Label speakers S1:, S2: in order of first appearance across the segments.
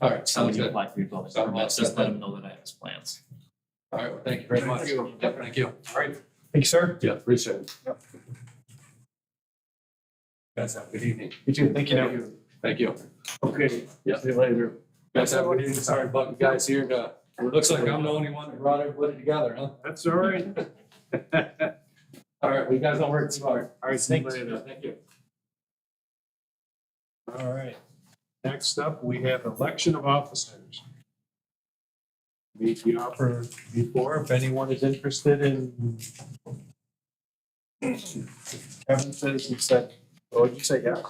S1: All right,
S2: So when
S1: sounds
S2: you
S1: good.
S2: apply for your building
S1: Sounds
S2: permit,
S1: awesome.
S2: just let them know that I have his plans.
S1: All right, well, thank you very much.
S3: Thank you.
S1: Yep, Thank you.
S3: All right. Thank you, sir.
S1: Yeah, appreciate it.
S3: Yep.
S1: Guys, have a good evening.
S3: You too. Thank you.
S1: Thank you.
S3: Okay.
S1: Yeah.
S3: See you later.
S1: Guys, have a good evening. Sorry about you guys here. uh, It looks like I'm the only one that brought everybody together, huh?
S3: That's all right. All
S1: All right, well, you guys don't work too hard.
S3: right, see you
S1: Thanks.
S3: later.
S1: Thank you.
S3: All right. Next up, we have election of officers. Meet the offer before, if anyone is interested in. Kevin says, he said, oh, you say yeah?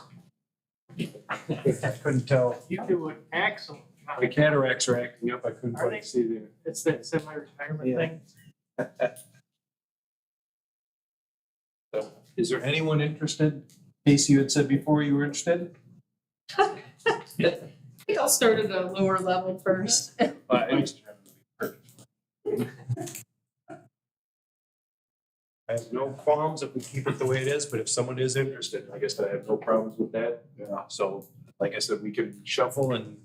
S3: I couldn't tell.
S4: You do an excellent job.
S3: The cataracts are acting up. I couldn't
S4: Are they?
S3: quite see there.
S4: It's that semi-retirement
S3: Yeah.
S4: thing.
S3: Is there anyone interested? Casey, you had said before you were interested?
S5: I think I'll start at a lower level first.
S3: I have no qualms if we keep it the way it is, but if someone is interested, I guess I have no problems with that. Yeah. So, like I said, we can shuffle and.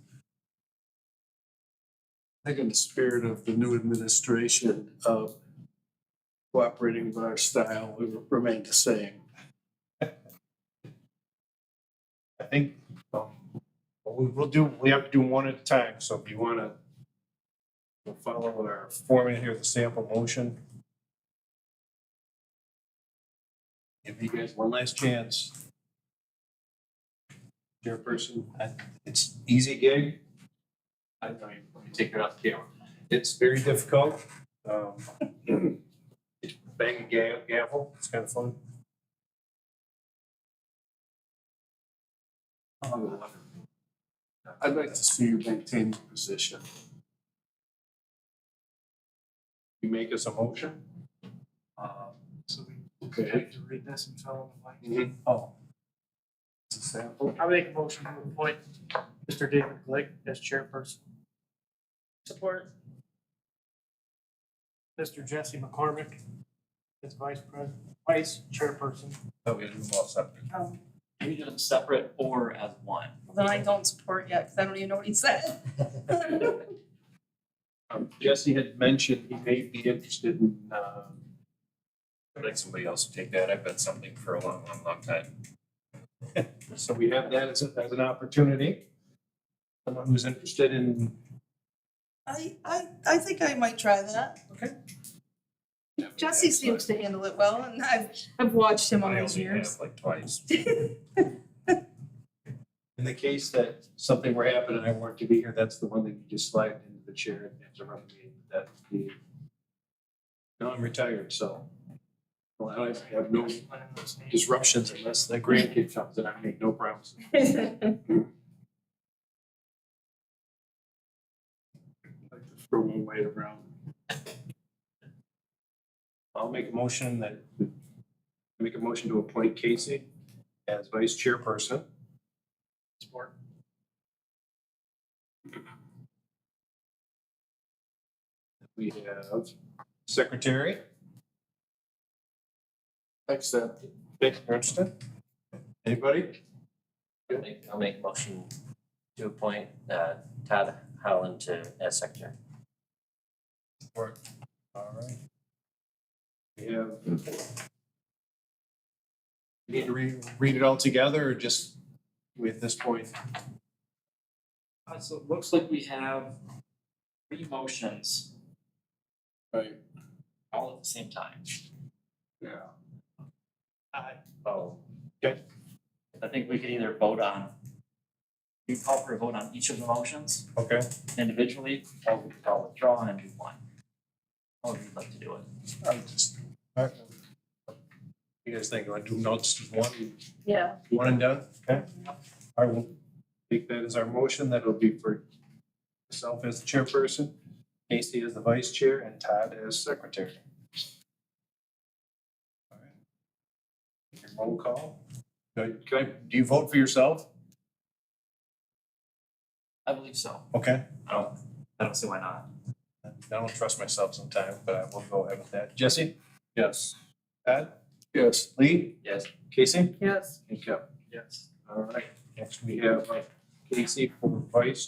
S6: I think in the spirit of the new administration of cooperating with our style, we remain the same.
S3: I think, um, we, we'll do, we have to do one at a time, so if you wanna we'll follow our format here, the sample motion. Give you guys one last chance. Chairperson, I- it's easy gig. I know you you take it off camera. It's very difficult. Um, it's Bang a ga- gavel, it's kind of fun.
S6: I'd like to see you maintain your position.
S3: You make us a motion?
S4: Um, So we
S6: Okay.
S4: have to read this and tell them.
S3: Oh.
S6: It's a sample.
S4: I make a motion to appoint Mr. David Glick as chairperson. Support. Mr. Jesse McCormick as vice president, vice chairperson.
S3: Oh, we do all separate.
S5: Um,
S2: Can you do them separate or as one?
S5: Then I don't support yet, because I don't even know what he said.
S3: Um, Jesse had mentioned he may be interested in, um. I'd like somebody else to take that, I've been something for a long, long, long time. So we have that as, a- as an opportunity. Someone who's interested in,
S5: I, I, I think I might try that.
S3: Okay.
S5: Jesse seems to handle it well, and I've, I've watched him all
S3: I
S5: those
S3: only have
S5: years.
S3: like twice. In the case that something were happening and I weren't to be here, that's the one that you just slide into the chair and have to run the meeting, that'd be. Now I'm retired, so. Well, I have no disruptions unless the grandkid comes, and I make no promises.
S6: I'd like to Throw one weight around.
S3: I'll make a motion that, make a motion to appoint Casey as vice chairperson.
S4: Support.
S3: We have secretary,
S6: Except
S3: Dick Ernsten. Anybody?
S7: I'll make- I'll make a motion to appoint uh, Todd Howland to as secretary.
S3: All right. We have. We Need to re- read it all together or just we at this point?
S2: Uh, so it looks like we have three motions
S6: Right,
S2: all at the same time.
S6: yeah.
S2: Oh.
S3: Okay.
S2: I think we could either vote on, you call for a vote on each of the motions
S3: Okay.
S2: individually, or we could all withdraw and do one. How would you like to do it?
S3: I'm just- all right. You guys think, I do notes just one,
S5: Yeah.
S3: one and done? Okay. I will take that as our motion. That'll be for myself as the chairperson, Casey as the vice chair, and Todd as secretary. All right. Your Roll call. Do I- can I- do you vote for yourself?
S2: I believe so.
S3: Okay.
S2: I don't, I don't see why not.
S3: I don't trust myself sometimes, but I will go ahead with that. Jesse? Yes. Todd?
S6: Yes.
S3: Lee?
S2: Yes.
S3: Casey?
S5: Yes.
S3: And Kevin.
S4: Yes.
S3: All right. Next, we have uh, Casey for vice